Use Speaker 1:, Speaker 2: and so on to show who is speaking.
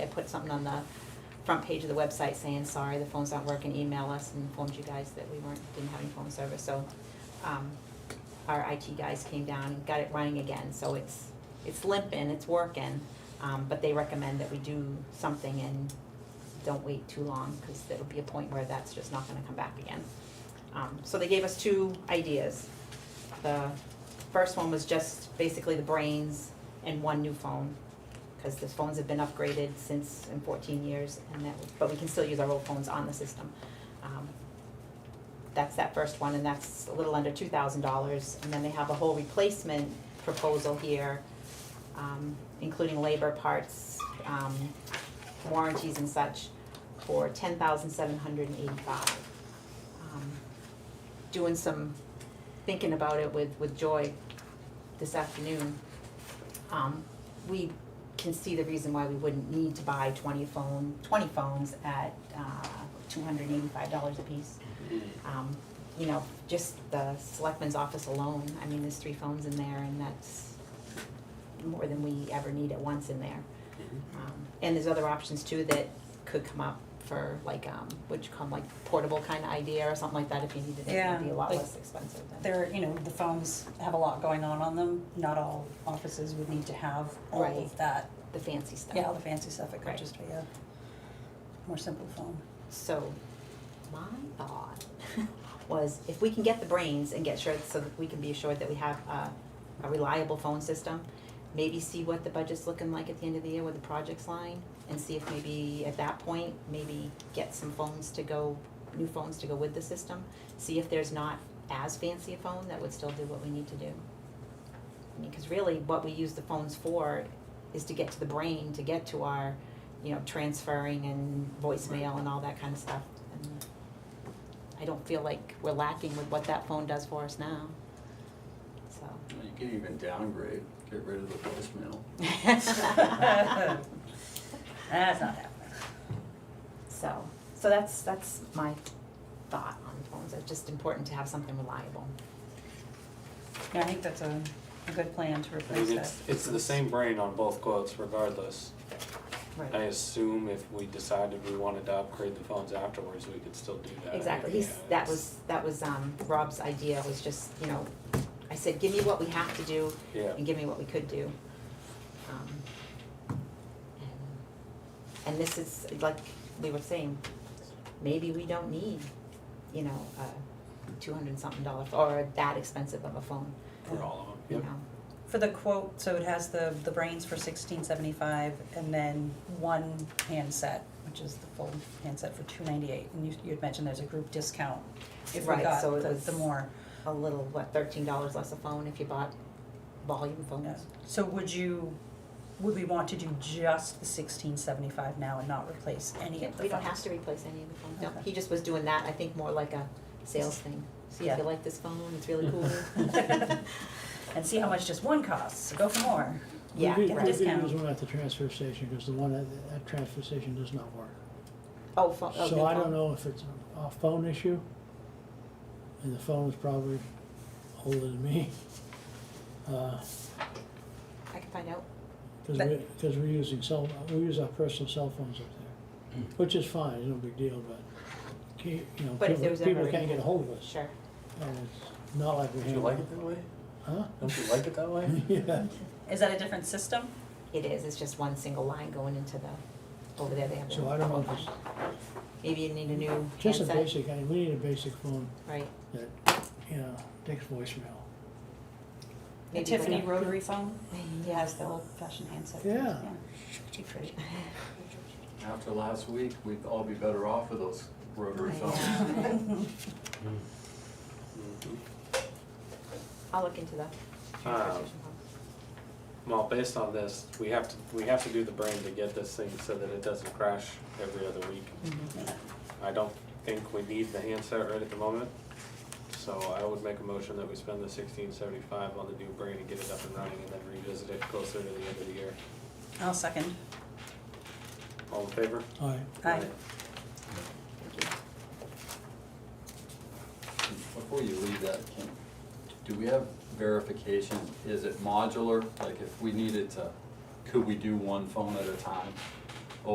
Speaker 1: put something on the front page of the website saying, sorry, the phone's not working, email us, and informed you guys that we weren't, didn't have any phone service, so, um, our IT guys came down and got it running again, so it's, it's limping, it's working, um, but they recommend that we do something and don't wait too long, cause there'll be a point where that's just not gonna come back again. Um, so they gave us two ideas. The first one was just basically the brains and one new phone, because the phones have been upgraded since in fourteen years, and that, but we can still use our old phones on the system. Um, That's that first one, and that's a little under two thousand dollars, and then they have a whole replacement proposal here, um, including labor parts, um, warranties and such, for ten thousand seven hundred and eighty-five um, doing some thinking about it with, with Joy this afternoon, um, we can see the reason why we wouldn't need to buy twenty phone, twenty phones at, uh, two hundred and eighty-five dollars apiece. Um, you know, just the selectman's office alone, I mean, there's three phones in there and that's more than we ever need at once in there. Um, And there's other options too that could come up for like, um, would you call them, like portable kind of idea or something like that if you needed it,
Speaker 2: Yeah,
Speaker 1: it'd be a lot
Speaker 2: like-
Speaker 1: less expensive than.
Speaker 2: There, you know, the phones have a lot going on on them. Not all offices would need to have all
Speaker 1: Right.
Speaker 2: of that,
Speaker 1: The fancy stuff.
Speaker 2: yeah, all the fancy stuff. It
Speaker 1: Right.
Speaker 2: could just be a more simple phone.
Speaker 1: So, my thought was if we can get the brains and get sure, so that we can be assured that we have uh, a, a reliable phone system, maybe see what the budget's looking like at the end of the year with the projects line, and see if maybe at that point, maybe get some phones to go, new phones to go with the system, see if there's not as fancy a phone that would still do what we need to do. I mean, cause really what we use the phones for is to get to the brain, to get to our, you know, transferring and voicemail and all that kind of stuff. And I don't feel like we're lacking with what that phone does for us now, so.
Speaker 3: You can even downgrade, get rid of the voicemail.
Speaker 2: That's not happening.
Speaker 1: So, so that's, that's my thought on phones, it's just important to have something reliable.
Speaker 2: Yeah, I think that's a, a good plan to
Speaker 4: I
Speaker 2: replace
Speaker 4: mean,
Speaker 2: that.
Speaker 4: it's, it's the same brain on both quotes regardless. I
Speaker 1: Right.
Speaker 4: assume if we decided we wanted to upgrade the phones afterwards, we could still do that.
Speaker 1: Exactly, he's,
Speaker 4: Yeah,
Speaker 1: that
Speaker 4: it's-
Speaker 1: was, that was, um, Rob's idea, was just, you know, I said, give me what we have to do,
Speaker 4: Yeah,
Speaker 1: and give me what we could do. Um, and- And this is, like we were saying, maybe we don't need, you know, a two hundred something dollar, ph- or that expensive of a phone,
Speaker 4: for all of
Speaker 1: you
Speaker 4: them,
Speaker 1: know?
Speaker 2: For the quote, so it has the, the brains for sixteen seventy-five and then one handset, which is the full handset for two ninety-eight. And you, you had mentioned there's a group discount if we
Speaker 1: Right,
Speaker 2: got
Speaker 1: so it
Speaker 2: the,
Speaker 1: was-
Speaker 2: the more.
Speaker 1: A little, what, thirteen dollars less a phone if you bought volume phones?
Speaker 2: So would you, would we want to do just the sixteen seventy-five now and not replace any of the
Speaker 1: We don't have
Speaker 2: phones?
Speaker 1: to replace any of the phones, no,
Speaker 2: Okay.
Speaker 1: he just was doing that, I think more like a sales thing. See if
Speaker 2: Yeah.
Speaker 1: you like this phone, it's really cool.
Speaker 2: And see how much just one costs, so go for more.
Speaker 1: Yeah,
Speaker 2: get the
Speaker 1: right.
Speaker 2: discount.
Speaker 5: one at the transfer station, because the one at, at transfer station does not work.
Speaker 1: Oh, phone, oh, new phone.
Speaker 5: So I don't know if it's a phone issue, and the phone is probably older than me. Because
Speaker 1: I can find out,
Speaker 2: But-
Speaker 5: we, because we're using cell, we use our personal cell phones up there,
Speaker 3: Hmm.
Speaker 5: which is fine, it's no big deal, but, ca- you know,
Speaker 1: But if there
Speaker 5: people,
Speaker 1: was
Speaker 5: people
Speaker 1: ever-
Speaker 5: can't get a hold of us.
Speaker 1: sure.
Speaker 5: And it's not like we
Speaker 3: Don't
Speaker 5: have.
Speaker 3: you like it that way?
Speaker 5: Huh?
Speaker 3: Don't you like it that way?
Speaker 5: Yeah,
Speaker 2: Is that a different system?
Speaker 1: It is, it's just one single line going into the, over there, they have their
Speaker 5: so I don't know,
Speaker 1: phone
Speaker 5: if it's
Speaker 1: line. Maybe you need a new
Speaker 5: just a
Speaker 1: handset,
Speaker 5: basic, I mean, we need a basic phone
Speaker 1: right?
Speaker 5: that, you know, takes voicemail.
Speaker 2: A
Speaker 1: Maybe
Speaker 2: Tiffany
Speaker 1: better.
Speaker 2: rotary phone? It
Speaker 1: Yeah.
Speaker 2: has the old fashioned handset.
Speaker 5: Yeah.
Speaker 2: Cheap rate.
Speaker 3: After last week, we'd all be better off with those rotary phones. Mm-hmm.
Speaker 1: I'll look into the transfer
Speaker 4: Um,
Speaker 1: station phone.
Speaker 4: well, based on this, we have to, we have to do the brain to get this thing so that it doesn't crash every other week. I don't think we need the handset right at the moment, so I would make a motion that we spend the sixteen seventy-five on the new brain and get it up and running and then revisit it closer to the end of the year.
Speaker 2: I'll second.
Speaker 4: All in favor?
Speaker 5: All right,
Speaker 2: Aye.
Speaker 3: Before you leave that, Kim, do we have verification? Is it modular? Like if we needed to, could we do one phone at a time?